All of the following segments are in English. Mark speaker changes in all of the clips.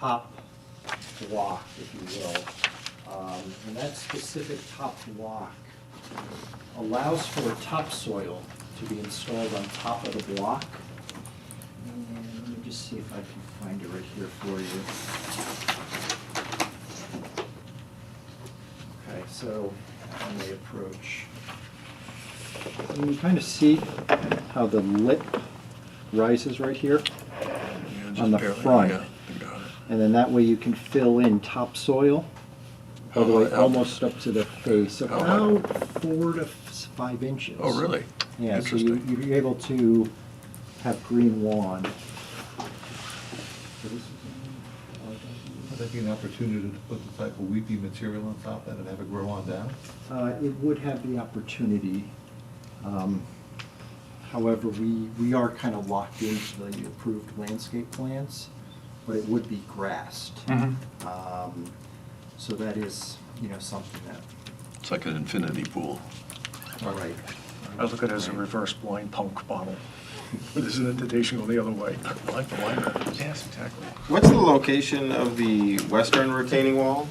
Speaker 1: top block, if you will. Um, And that specific top block allows for topsoil to be installed on top of the block. And let me just see if I can find it right here for you. Okay, so on the approach. You can kind of see how the lip rises right here? on the front. And then that way you can fill in topsoil, all the way
Speaker 2: How- how-
Speaker 1: almost up to the face,
Speaker 2: How high?
Speaker 1: about four to f- five inches.
Speaker 2: Oh, really?
Speaker 1: Yeah, so you,
Speaker 2: Interesting.
Speaker 1: you're able to have green lawn.
Speaker 3: Would that be an opportunity to put the type of weepy material on top of that and have it grow on down?
Speaker 1: Uh, it would have the opportunity. Um, However, we, we are kind of locked into the approved landscape plans, but it would be grassed.
Speaker 4: Mm-hmm.
Speaker 1: Um, So that is, you know, something that,
Speaker 2: It's like an infinity pool.
Speaker 1: all right.
Speaker 4: I look at it as a reverse blind punk bottle. There's an indentation going the other way. I like the line. Yes, exactly.
Speaker 5: What's the location of the western retaining wall?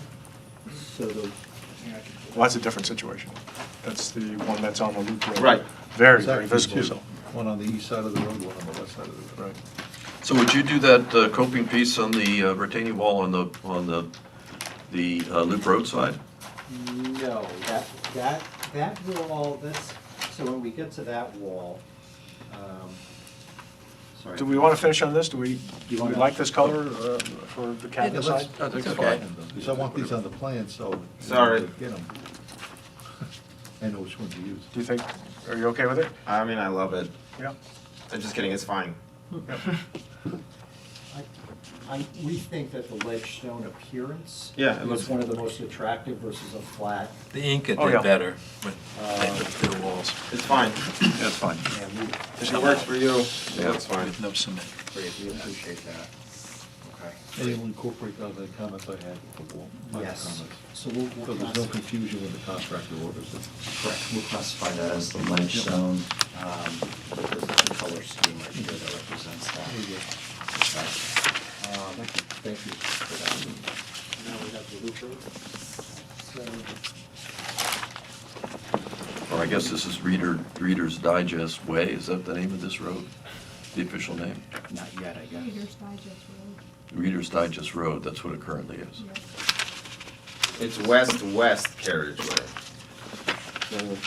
Speaker 1: So the,
Speaker 4: Well, that's a different situation. That's the one that's on the loop road.
Speaker 5: Right.
Speaker 4: Very,
Speaker 3: There's
Speaker 4: very
Speaker 3: actually
Speaker 4: visible,
Speaker 3: two.
Speaker 4: so.
Speaker 3: One on the east side of the road, one on the west side of the road.
Speaker 4: Right.
Speaker 2: So would you do that uh, coping piece on the uh, retaining wall on the, on the, the uh, loop road side?
Speaker 1: no, that, that, that wall, that's, so when we get to that wall, um, sorry.
Speaker 4: Do we want to finish on this? Do we, do we
Speaker 1: wanna-
Speaker 4: like this color uh, for the
Speaker 2: Yeah,
Speaker 4: cabin
Speaker 2: let's-
Speaker 4: side?
Speaker 2: I think
Speaker 3: It's
Speaker 2: fine.
Speaker 3: fine. Because I want these on the plan, so.
Speaker 5: Sorry.
Speaker 3: Get them. I know which one to use.
Speaker 4: Do you think, are you okay with it?
Speaker 5: I mean, I love it.
Speaker 4: Yeah.
Speaker 5: I'm just kidding, it's fine.
Speaker 1: I- I, we think that the ledge stone appearance.
Speaker 5: Yeah, it
Speaker 1: is
Speaker 5: looks-
Speaker 1: one of the most attractive versus a flat.
Speaker 6: The Inca
Speaker 4: Oh, yeah. Uh,
Speaker 6: did better when they put their walls
Speaker 5: It's fine.
Speaker 2: Yeah, it's fine.
Speaker 1: And we,
Speaker 5: If it works for you, it's fine.
Speaker 6: with no cement.
Speaker 1: great, we appreciate that. Okay.
Speaker 3: And you'll incorporate all the comments I had before. my
Speaker 1: Yes,
Speaker 3: comments.
Speaker 1: so we'll,
Speaker 3: So
Speaker 1: we'll
Speaker 3: there's no
Speaker 1: classify,
Speaker 3: confusion when the contractor orders it.
Speaker 1: correct, we'll classify that as the ledge stone. Um, There's a color scheme right here that represents that. Okay. Um, Thank you for that. Now we have the loop road. So,
Speaker 2: Or I guess this is Reader, Reader's Digest Way, is that the name of this road? The official name?
Speaker 1: Not yet, I guess.
Speaker 7: Reader's Digest Road,
Speaker 2: Reader's Digest Road, that's what it currently is.
Speaker 7: yeah.
Speaker 5: It's west-west carriageway.
Speaker 2: No,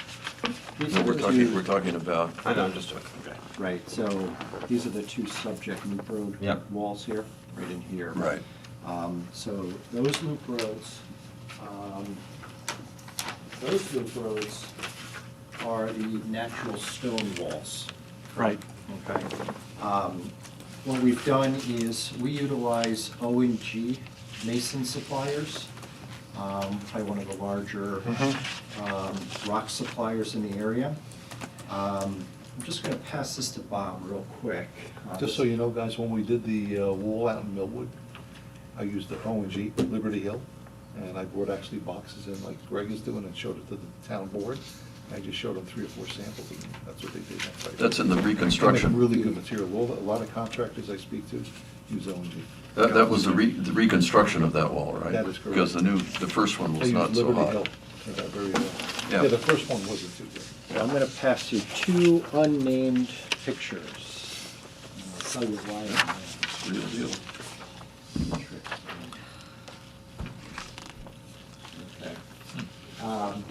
Speaker 2: we're talking, we're talking about.
Speaker 5: I know, I'm just joking. Okay.
Speaker 1: Right, so these are the two subject loop road
Speaker 5: Yep.
Speaker 1: walls here, right in here.
Speaker 2: Right.
Speaker 1: Um, So those loop roads, um, those loop roads are the natural stone walls.
Speaker 4: Right.
Speaker 1: Okay. Um, What we've done is we utilize O and G mason suppliers, um, probably one of the larger um, rock suppliers in the area. Um, I'm just going to pass this to Bob real quick. Uh,
Speaker 3: Just so you know, guys, when we did the uh, wall out in Millwood, I used the O and G, Liberty Hill, and I brought actually boxes in like Greg is doing and showed it to the town board. I just showed them three or four samples, and that's what they did.
Speaker 2: That's in the
Speaker 3: They make
Speaker 2: reconstruction.
Speaker 3: Really good material. A lot- A lot of contractors I speak to use O and G.
Speaker 2: That, that was the re, the reconstruction of that wall, right?
Speaker 3: That is correct.
Speaker 2: Because the new, the first one
Speaker 3: I
Speaker 2: was
Speaker 3: used
Speaker 2: not so
Speaker 3: Liberty
Speaker 2: high.
Speaker 3: Hill. They got very well.
Speaker 2: Yeah.
Speaker 3: Yeah, the first one wasn't too good.
Speaker 1: I'm going to pass you two unnamed pictures. And I'll tell you why I'm gonna-
Speaker 2: Real deal.
Speaker 1: Um,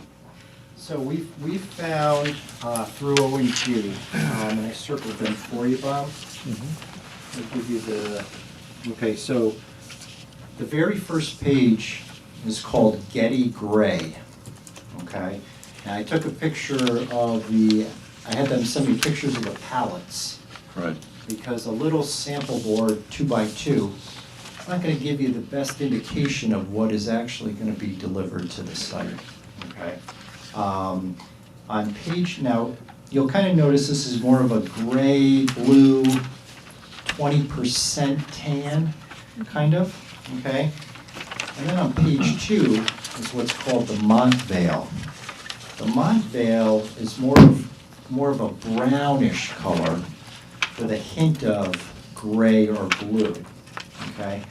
Speaker 1: So we've, we've found uh, through O and G, um, and I circled them for you, Bob. I'll give you the, okay, so the very first page is called Getty Gray, okay? And I took a picture of the, I had them send me pictures of the pallets
Speaker 2: Right.
Speaker 1: because a little sample board, two by two, it's not gonna give you the best indication of what is actually gonna be delivered to the site, okay? Um, On page, now, you'll kind of notice this is more of a gray, blue, twenty percent tan, kind of, okay? And then on page two is what's called the Mont Vale. The Mont Vale is more of, more of a brownish color with a hint of gray or blue, okay?